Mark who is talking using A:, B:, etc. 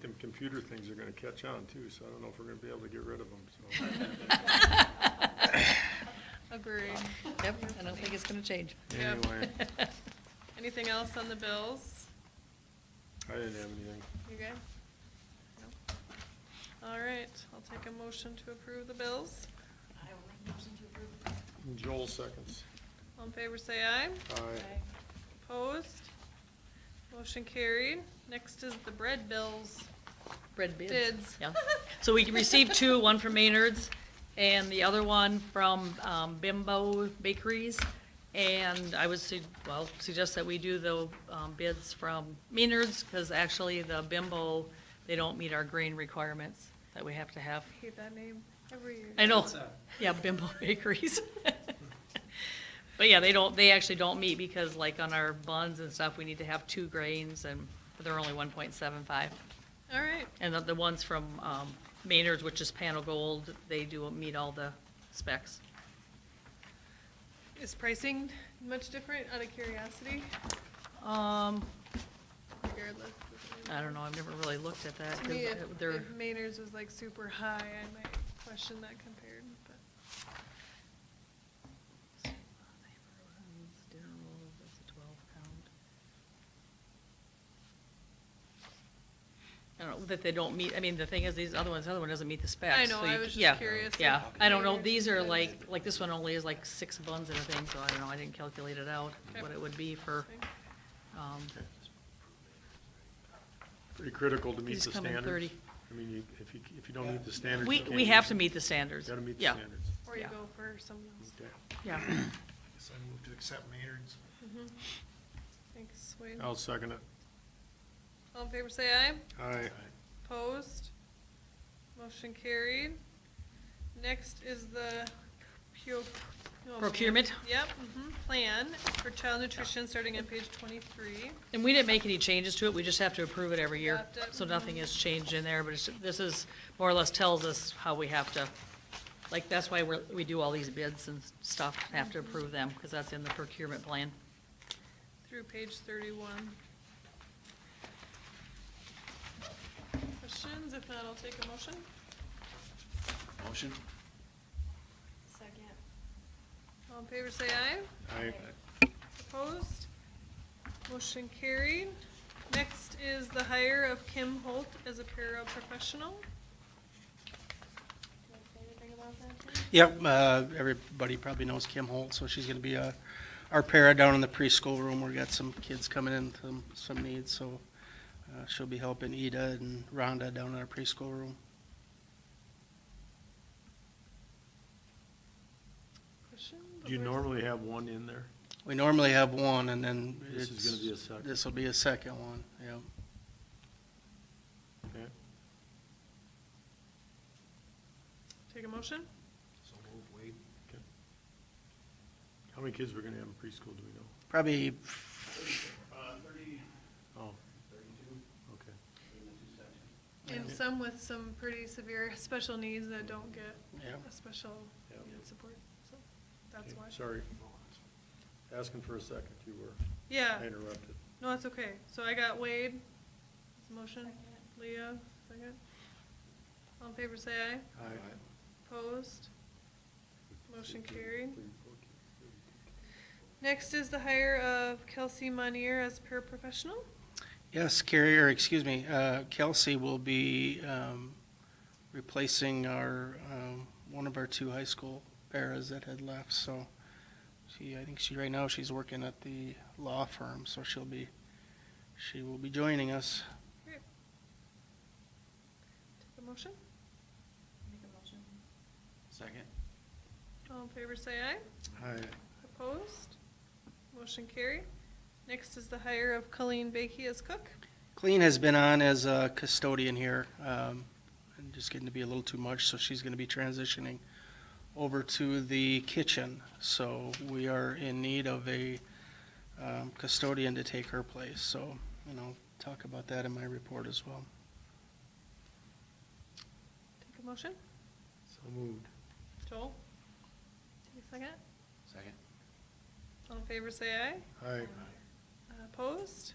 A: them computer things are gonna catch on too, so I don't know if we're gonna be able to get rid of them, so.
B: Agreed.
C: Yep, I don't think it's gonna change.
B: Yeah.
A: Anyway,
B: Anything else on the bills?
A: I didn't have anything.
B: You good? No? All right, I'll take a motion to approve the bills.
A: Joel seconds. Uh,
B: All in favor, say aye.
A: Aye.
B: Opposed? Motion carried. Next is the bread bills.
C: Bread bids.
B: Bids.
C: Yeah. So we received two, one from Maynard's and the other one from um, Bimbo Bakeries. And I would, su- well, suggest that we do the um, bids from Maynard's because actually the Bimbo, they don't meet our grain requirements that we have to have.
B: I Hate that name every year.
C: I know, yeah, Bimbo Bakeries. But yeah, they don't, they actually don't meet because like on our buns and stuff, we need to have two grains and they're only one point seven five.
B: All right,
C: And the, the ones from, um, Maynard's, which is panel gold, they do meet all the specs.
B: is pricing much different out of curiosity
C: Um,
B: regardless?
C: I don't know, I've never really looked at that,
B: To me, if,
C: 'cause they're,
B: if Maynard's was like super high, I might question that compared, but.
C: I don't know, that they don't meet, I mean, the thing is, these other ones, the other one doesn't meet the specs.
B: know,
C: so you
B: I
C: c-
B: was just
C: yeah,
B: curious
C: Yeah,
B: if
C: I don't know,
B: they're-
C: these are like, like this one only is like six buns and a thing, so I don't know, I didn't calculate it out,
B: Okay.
C: what it would be for, um,
A: Pretty critical to meet
C: These
A: the
C: come in
A: standards.
C: 30.
A: I mean, you, if you, if you don't meet the standards.
C: we,
A: you can't
C: we
A: use
C: have to
A: them.
C: meet the standards.
A: Gotta meet the
C: Yeah,
A: standards.
B: Or you
C: Yeah.
B: go for someone else.
A: Okay.
C: Yeah,
D: So I move to accept Maynard's.
B: Thanks, Wade.
A: I'll second it.
B: All in favor, say aye.
A: Aye.
B: Opposed? Motion carried. Next is the pu- oh, man.
C: Procurement.
B: Yep, hmm plan for child nutrition, starting on page twenty-three.
C: and we didn't make any changes to it, we just have to approve it every year.
B: Adopt it.
C: So nothing has changed in there, but it's, this is, more or less tells us how we have to, like, that's why we're, we do all these bids and stuff, have to approve them, because that's in the procurement plan.
B: through page thirty-one. Questions? If not, I'll take a motion.
D: Motion?
B: Second. All in favor, say aye.
A: Aye.
B: Opposed? Motion carried. Next is the hire of Kim Holt as a paraprofessional. Do you want to say anything about that? Kim?
E: Yep, uh, everybody probably knows Kim Holt, so she's gonna be uh, our para down in the preschool room. We've got some kids coming in, some, some needs, so uh, she'll be helping Ida and Rhonda down in our preschool room.
B: Questions?
A: Do you normally have one in there?
E: We normally have one, and then
A: This is gonna be a
E: it's-
A: second.
E: This will be a second one, yeah.
A: Okay.
B: Take a motion?
D: So move Wade.
A: How many kids we're gonna have in preschool, do we know?
E: Probably,
D: Uh, thirty,
A: Oh,
D: thirty-two,
A: okay.
D: in the two sections.
B: And some with some pretty severe special needs that don't get
E: yeah.
B: a special
A: Yeah.
B: needs support, so that's
A: Okay,
B: why.
A: Sorry. Asking for a second, you were.
B: Yeah,
A: I interrupted.
B: no, that's okay. So I got Wade, his motion, Leah, second. All in favor, say aye.
A: Aye.
B: Opposed? Motion carried. Next is the hire of Kelsey Monier as paraprofessional.
E: Yes, Carrie, or excuse me, uh, Kelsey will be um, replacing our, um, one of our two high school paras that had left, so she, I think she, right now, she's working at the law firm, so she'll be, she will be joining us.
B: Take a motion.
D: Second?
B: All in favor, say aye.
A: Aye.
B: Opposed? Motion carried. Next is the hire of Colleen Bakey as cook.
E: Colleen has been on as a custodian here, um, and just getting to be a little too much, so she's gonna be transitioning over to the kitchen, so we are in need of a, um, custodian to take her place, so, you know, talk about that in my report as well.
B: Take a motion.
A: So moved.
B: Joel? Take a second.
D: Second.
B: All in favor, say aye.
A: Aye.
B: Uh, Opposed?